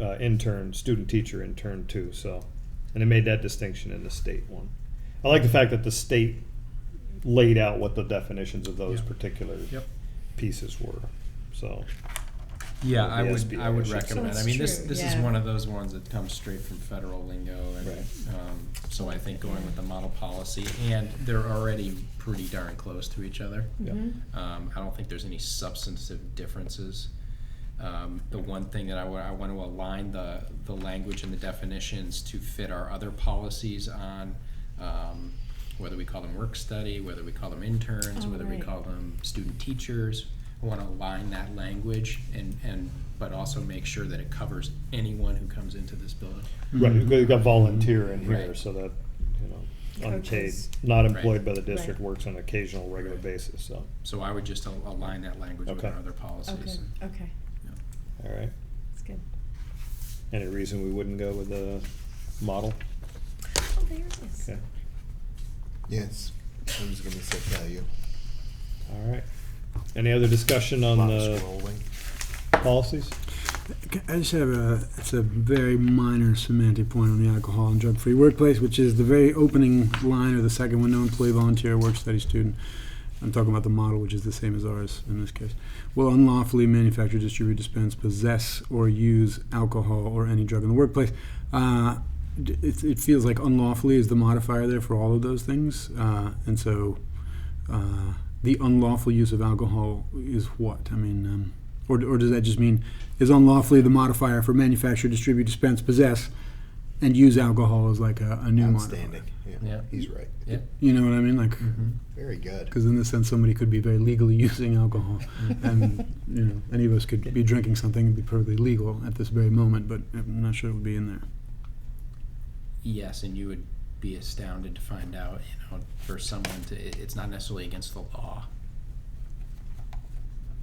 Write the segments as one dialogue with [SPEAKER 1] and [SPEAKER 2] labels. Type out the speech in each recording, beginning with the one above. [SPEAKER 1] uh, intern, student teacher intern too. So, and it made that distinction in the state one. I like the fact that the state laid out what the definitions of those
[SPEAKER 2] Yeah.
[SPEAKER 1] particular
[SPEAKER 2] Yep.
[SPEAKER 1] pieces were. So,
[SPEAKER 2] Yeah,
[SPEAKER 1] Or
[SPEAKER 2] I
[SPEAKER 1] the
[SPEAKER 2] would,
[SPEAKER 1] SBA,
[SPEAKER 2] I
[SPEAKER 1] I
[SPEAKER 2] would
[SPEAKER 1] should say.
[SPEAKER 2] recommend,
[SPEAKER 3] So
[SPEAKER 2] I
[SPEAKER 3] it's
[SPEAKER 2] mean, this,
[SPEAKER 3] true,
[SPEAKER 2] this is
[SPEAKER 3] yeah.
[SPEAKER 2] one of those ones that comes straight from federal lingo and,
[SPEAKER 1] Right.
[SPEAKER 2] um, so I think going with the model policy and they're already pretty darn close to each other.
[SPEAKER 1] Yeah.
[SPEAKER 3] Mhm.
[SPEAKER 2] Um, I don't think there's any substantive differences. Um, the one thing that I want to align the, the language and the definitions to fit our other policies on, um, whether we call them work study, whether we call them interns,
[SPEAKER 3] Oh,
[SPEAKER 2] whether we
[SPEAKER 3] right.
[SPEAKER 2] call them student teachers. I want to align that language and, and, but also make sure that it covers anyone who comes into this building.
[SPEAKER 1] right, you got volunteer in here,
[SPEAKER 2] Right.
[SPEAKER 1] so that you know, unpaid,
[SPEAKER 3] Coaches.
[SPEAKER 1] not employed by the
[SPEAKER 3] Right.
[SPEAKER 1] district, works on an occasional, regular basis. So,
[SPEAKER 2] So I would just al- align that language with
[SPEAKER 1] Okay.
[SPEAKER 2] our other
[SPEAKER 3] Okay,
[SPEAKER 2] policies.
[SPEAKER 3] okay,
[SPEAKER 2] Yeah.
[SPEAKER 1] all right.
[SPEAKER 3] that's good.
[SPEAKER 1] Any reason we wouldn't go with the model?
[SPEAKER 3] Oh, there it is.
[SPEAKER 1] Okay.
[SPEAKER 4] Yes, I'm just gonna say value.
[SPEAKER 1] All right. Any other discussion on
[SPEAKER 4] Lot
[SPEAKER 1] the
[SPEAKER 4] scrolling.
[SPEAKER 1] policies?
[SPEAKER 5] I just have a, it's a very minor semantic point on the alcohol and drug-free workplace, which is the very opening line or the second one, no employee, volunteer, work study student. I'm talking about the model, which is the same as ours in this case. Will unlawfully manufacture, distribute, dispense, possess, or use alcohol or any drug in the workplace. Uh, d- it, it feels like unlawfully is the modifier there for all of those things, uh, and so, uh, the unlawful use of alcohol is what? I mean, um, or, or does that just mean is unlawfully the modifier for manufacture, distribute, dispense, possess, and use alcohol as like a, a new
[SPEAKER 4] Outstanding,
[SPEAKER 5] modifier?
[SPEAKER 4] yeah,
[SPEAKER 2] Yeah.
[SPEAKER 4] he's right,
[SPEAKER 2] Yeah.
[SPEAKER 5] You know what I mean? Like,
[SPEAKER 2] Mm-hmm.
[SPEAKER 4] very good.
[SPEAKER 5] because in this sense, somebody could be very legally using alcohol,
[SPEAKER 2] Mm-hmm.
[SPEAKER 5] and you know, any of us could be drinking something and be perfectly legal at this very moment, but I'm not sure it would be in there.
[SPEAKER 2] Yes, and you would be astounded to find out, you know, for someone to, it- it's not necessarily against the law.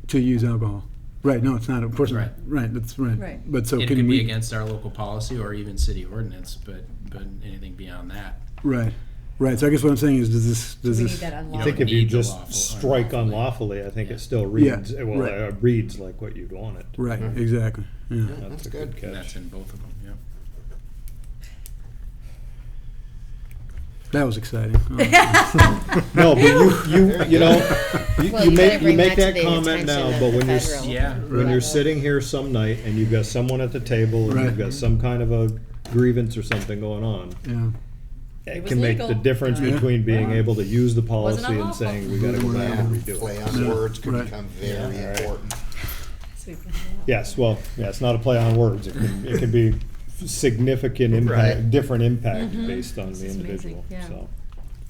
[SPEAKER 5] To use alcohol, right? No, it's not. Of course,
[SPEAKER 2] Right.
[SPEAKER 5] not. Right. That's right.
[SPEAKER 3] Right.
[SPEAKER 5] But so
[SPEAKER 2] It
[SPEAKER 5] can
[SPEAKER 2] could be
[SPEAKER 5] we?
[SPEAKER 2] against our local policy or even city ordinance, but, but anything beyond that.
[SPEAKER 5] Right. Right. So I guess what I'm saying is, does this
[SPEAKER 3] We
[SPEAKER 5] does
[SPEAKER 3] need
[SPEAKER 5] this
[SPEAKER 3] that
[SPEAKER 1] I
[SPEAKER 2] I
[SPEAKER 3] unlocked.
[SPEAKER 1] think
[SPEAKER 2] think
[SPEAKER 1] if
[SPEAKER 2] if
[SPEAKER 1] you
[SPEAKER 2] need the
[SPEAKER 1] just
[SPEAKER 2] lawful,
[SPEAKER 1] strike
[SPEAKER 2] unlawfully.
[SPEAKER 1] unlawfully, I think it still
[SPEAKER 5] Yeah,
[SPEAKER 1] reads, well,
[SPEAKER 5] right.
[SPEAKER 1] it reads like what you'd want it.
[SPEAKER 5] right?
[SPEAKER 2] Mm-hmm.
[SPEAKER 5] Exactly. Yeah.
[SPEAKER 4] Yeah,
[SPEAKER 1] That's
[SPEAKER 4] That's
[SPEAKER 1] a good
[SPEAKER 4] good.
[SPEAKER 2] And that's
[SPEAKER 1] catch.
[SPEAKER 2] in both of them, yeah.
[SPEAKER 5] That was exciting. Oh,
[SPEAKER 1] No, but you, you, you know, you-
[SPEAKER 6] Well,
[SPEAKER 1] you
[SPEAKER 6] you
[SPEAKER 1] make,
[SPEAKER 6] gotta
[SPEAKER 1] you
[SPEAKER 6] bring
[SPEAKER 1] make
[SPEAKER 6] that to
[SPEAKER 1] that
[SPEAKER 6] the
[SPEAKER 1] comment
[SPEAKER 6] attention
[SPEAKER 1] now,
[SPEAKER 6] of
[SPEAKER 1] but
[SPEAKER 6] the
[SPEAKER 1] when you're, s-
[SPEAKER 6] federal.
[SPEAKER 2] Yeah,
[SPEAKER 1] when you're
[SPEAKER 6] level.
[SPEAKER 1] sitting here some night and you've got someone at the table and you've
[SPEAKER 5] Right.
[SPEAKER 1] got some kind of a grievance or something going on,
[SPEAKER 5] yeah.
[SPEAKER 1] it
[SPEAKER 3] was
[SPEAKER 1] can make the
[SPEAKER 3] legal.
[SPEAKER 1] difference
[SPEAKER 5] Yeah.
[SPEAKER 1] between being able to use the policy and
[SPEAKER 3] unlawful.
[SPEAKER 1] saying, we gotta go back and redo it.
[SPEAKER 4] Play on
[SPEAKER 5] Yeah,
[SPEAKER 4] words could
[SPEAKER 5] right.
[SPEAKER 4] become very
[SPEAKER 1] Yeah.
[SPEAKER 4] important.
[SPEAKER 3] So we've got that.
[SPEAKER 1] Yes, well, yeah, it's not a play on words. It can, it can be significant impact,
[SPEAKER 4] Right.
[SPEAKER 1] different impact based on the
[SPEAKER 3] is Mm-hmm. amazing,
[SPEAKER 1] individual,
[SPEAKER 3] yeah.
[SPEAKER 1] so.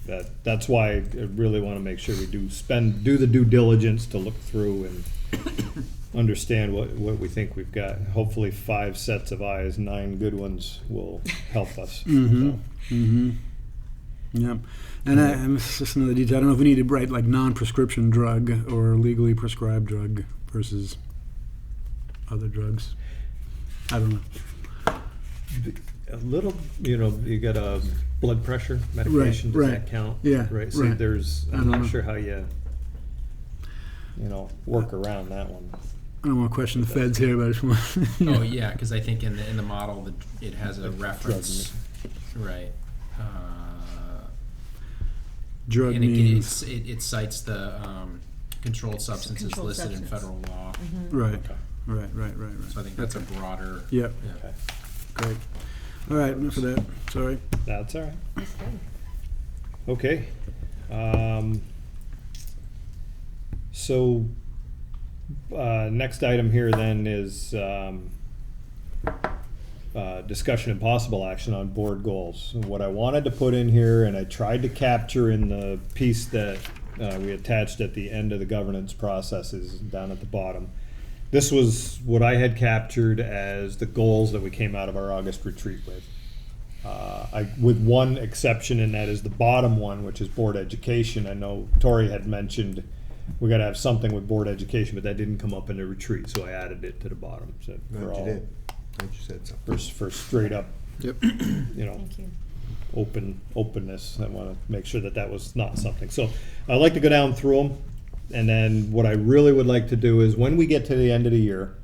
[SPEAKER 1] That, that's why I really wanna make sure we do spend, do the due diligence to look through and understand what, what we think we've got. Hopefully, five sets of eyes, nine good ones will help us.
[SPEAKER 5] Mhm.
[SPEAKER 1] so.
[SPEAKER 5] Mm-hmm. Yep. And I, and this is just another detail. I don't know if we need to write like non-prescription drug or legally prescribed drug versus other drugs. I don't know.
[SPEAKER 1] A little, you know, you got a blood pressure medication, does
[SPEAKER 5] right,
[SPEAKER 1] that count?
[SPEAKER 5] yeah,
[SPEAKER 1] Right, so
[SPEAKER 5] right.
[SPEAKER 1] there's,
[SPEAKER 5] I
[SPEAKER 1] I'm
[SPEAKER 5] don't
[SPEAKER 1] not
[SPEAKER 5] know.
[SPEAKER 1] sure how you, you know, work around that one.
[SPEAKER 5] I don't want to question the feds here, but I just want.
[SPEAKER 2] Oh, yeah, because I think in the, in the model, the- it has a reference, right. Uh,
[SPEAKER 5] Drug
[SPEAKER 2] And it g-
[SPEAKER 5] means
[SPEAKER 2] it's- it, it cites the um, controlled substances
[SPEAKER 3] Controlled
[SPEAKER 2] listed in
[SPEAKER 3] substance. Mm-hmm.
[SPEAKER 2] federal law.
[SPEAKER 5] right,
[SPEAKER 1] Okay.
[SPEAKER 5] right, right, right, right.
[SPEAKER 2] So I think that's a broader.
[SPEAKER 5] Yep.
[SPEAKER 2] yeah.
[SPEAKER 1] Okay.
[SPEAKER 5] Great. All right. Enough of that. Sorry.
[SPEAKER 1] That's all right.
[SPEAKER 3] That's good.
[SPEAKER 1] Okay. Um, so, uh, next item here then is, um, uh, discussion and possible action on board goals. And What I wanted to put in here, and I tried to capture in the piece that, uh, we attached at the end of the governance processes down at the bottom. This was what I had captured as the goals that we came out of our August retreat with. Uh, I, with one exception, and that is the bottom one, which is board education. I know Tori had mentioned we got to have something with board education, but that didn't come up in the retreat, so I added it to the bottom. So for
[SPEAKER 4] Glad you
[SPEAKER 1] all-
[SPEAKER 4] did. Glad you said something.
[SPEAKER 1] For, for straight up,
[SPEAKER 5] Yep.
[SPEAKER 1] you know,
[SPEAKER 3] Thank you.
[SPEAKER 1] open, openness. I want to make sure that that was not something. So I'd like to go down through them. And then what I really would like to do is when we get to the end of the year,